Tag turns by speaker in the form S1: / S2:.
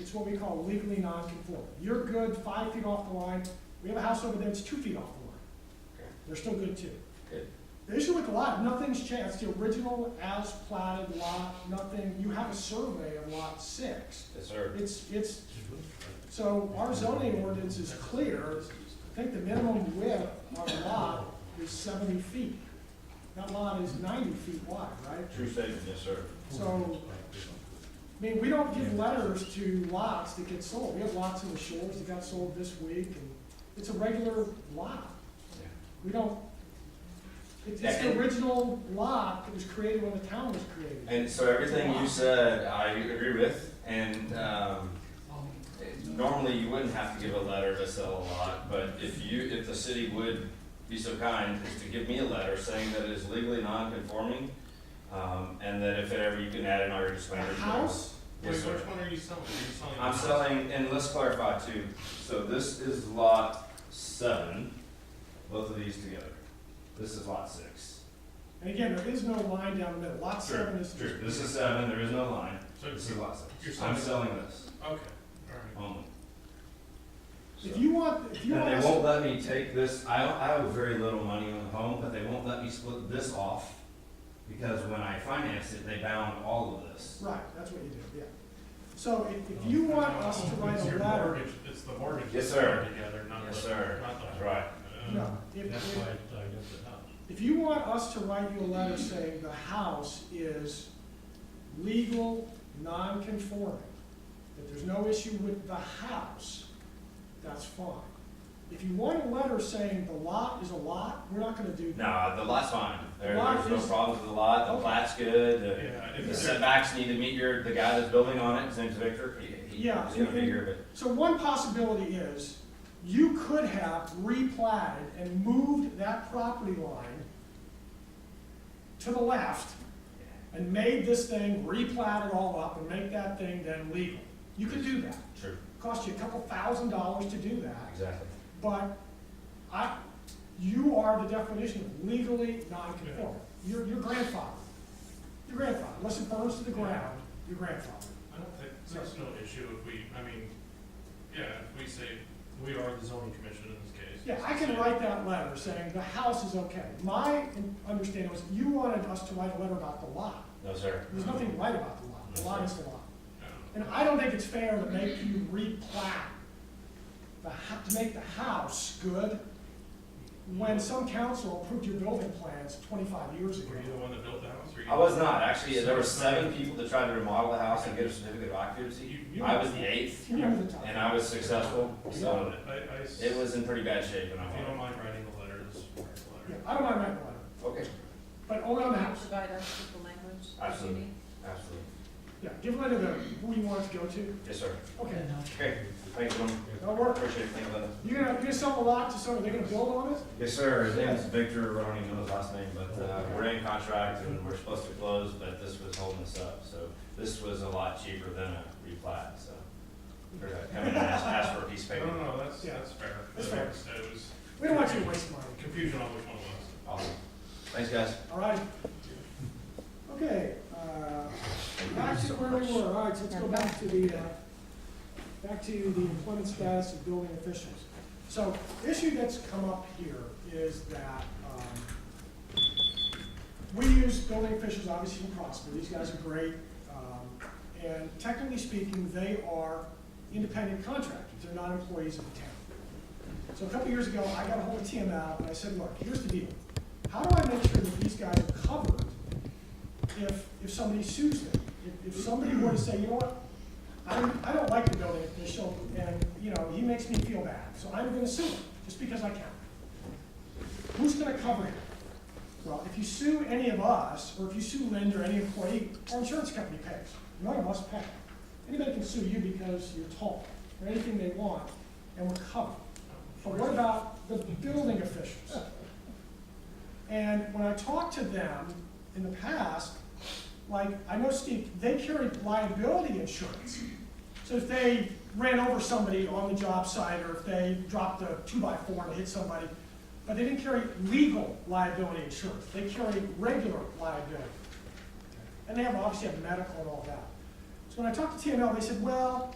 S1: It's what we call legally non-conforming. You're good five feet off the line. We have a house over there that's two feet off the line.
S2: Okay.
S1: They're still good too.
S2: Good.
S1: The issue with the lot, nothing's changed. It's the original as platted lot, nothing, you have a survey of lot six.
S2: Yes, sir.
S1: It's, it's, so our zoning ordinance is clear. I think the minimum width of a lot is seventy feet. That lot is ninety feet wide, right?
S2: True statement, yes, sir.
S1: So, I mean, we don't give letters to lots that get sold. We have lots in the shores that got sold this week, and it's a regular lot. We don't, it's it's the original lot that was created when the town was created.
S2: And so everything you said, I agree with, and, um, normally you wouldn't have to give a letter to sell a lot, but if you, if the city would be so kind as to give me a letter saying that it is legally non-conforming, um, and that if ever you can add in all your
S1: The
S2: disclaimers.
S1: house,
S3: Wait,
S2: Yes,
S3: which
S2: sir.
S3: one are you selling? Are you selling?
S2: I'm
S3: the-
S2: selling, and let's clarify too, so this is lot seven, both of these together. This is lot six.
S1: and again, there is no line down the middle. Lot seven is just.
S2: True, this is seven, there is no line,
S3: So,
S2: this
S3: okay,
S2: is lot
S3: You're
S2: six.
S3: selling-
S2: I'm selling this
S3: all right.
S2: only. So-
S1: If you want, if you want
S2: And
S1: us
S2: they won't let me take this, I, I owe very little money on the home, but they won't let me split this off, because when I financed it, they bound all of this.
S1: right, that's what you do, yeah. So if, if you want us to write
S3: Oh, It's your
S1: a letter,
S3: mortgage- It's the mortgage.
S2: Yes,
S3: that's
S2: sir.
S3: tied Together, not the.
S2: Yes, sir.
S3: Not the.
S2: That's right.
S3: Uh,
S1: no, if,
S4: That's
S1: if,
S4: why I got the house.
S1: If you want us to write you a letter saying the house is legal, non-conforming, that there's no issue with the house, that's fine. If you want a letter saying the lot is a lot, we're not gonna do that.
S2: No, the lot's fine, there,
S1: Lot
S2: there's no
S1: is-
S2: problems with the lot, the
S1: Okay.
S2: plat's good, the.
S3: Yeah, if
S2: The
S3: there's-
S2: setbacks need to meet your, the guy that's building on it, his name's Victor, he, he- he's
S1: Yeah,
S2: gonna
S1: and-
S2: be here, but.
S1: So one possibility is, you could have replatted and moved that property line to the left and made this thing replatted all up and make that thing then legal. You could do that.
S2: True.
S1: cost you a couple thousand dollars to do that,
S2: Exactly.
S1: but I, you are the definition of legally non-conforming. You're, your grandfather, your grandfather, unless it burns to the ground, your grandfather.
S3: I don't think, there's no issue if we, I mean, yeah, if we say, we are the zoning commission in this case.
S1: Yeah, I can write that letter saying the house is okay. My understanding was you wanted us to write a letter about the lot.
S2: No, sir.
S1: There's nothing right about the lot, the lot is the lot.
S3: Yeah.
S1: And I don't think it's fair to make you replat, the, hou- to make the house good, when some council approved your building plans twenty-five years ago.
S3: Were you the one that built the house or you?
S2: I was not, actually, there were seven people that tried to remodel the house and get a certificate of occupancy.
S3: You- you-
S2: I was the eighth,
S1: You remember the time?
S2: and I was successful, so
S3: I, I s-
S2: it was in pretty bad shape when I
S3: If you don't
S2: won.
S3: mind writing the letters, write the
S1: Yeah,
S3: letter.
S1: I don't mind writing a letter,
S2: Okay,
S1: but only on the house.
S5: Provide us with the language. that you
S2: Absolutely.
S5: need.
S2: absolutely.
S1: Yeah, give a letter to who you want it to go to.
S2: Yes, sir.
S1: Okay,
S2: Okay, thanks, gentlemen.
S1: that'll work.
S2: Appreciate it, thank you, Linda.
S1: You're gonna, you're gonna sell the lot to someone, they're gonna build on it?
S2: Yes, sir, his name is Victor, I don't even know his last name, but, uh, we're in contract and we're supposed to close, but this was holding us up, so this was a lot cheaper than a replat, so. We're gonna Come in and ask, ask for a piece of
S3: No,
S2: paper.
S3: no, no, that's,
S1: Yeah.
S3: that's fair.
S1: That's fair.
S3: So It was
S1: We don't want you to waste money,
S3: confusion on which one it was.
S2: Awesome. Thanks, guys.
S1: all right? Okay, uh, Back to where we were, all right, so let's go back to the, uh, back to the employment status of building officials. So, the issue that's come up here is that, um, we use building officials, obviously, from Prosper, these guys are great. um, And technically speaking, they are independent contractors, they're not employees of the town. So a couple years ago, I got ahold of TML, and I said, look, here's the deal. How do I make sure that these guys are covered if, if somebody sues them. If, if somebody were to say, you know what, I, I don't like the building official, and, you know, he makes me feel bad, so I'm gonna sue him, just because I can. Who's gonna cover him? Well, if you sue any of us, or if you sue Lynn or any employee, our insurance company pays. None of us pay. Anybody can sue you because you're tall, or anything they want, and we're covered. But what about the building officials? And when I talked to them in the past, like, I know Steve, they carry liability insurance. So if they ran over somebody on the job site, or if they dropped a two-by-four and hit somebody, but they didn't carry legal liability insurance, they carry regular liability. And they have, obviously have medical and all that. So when I talked to TML, they said, well,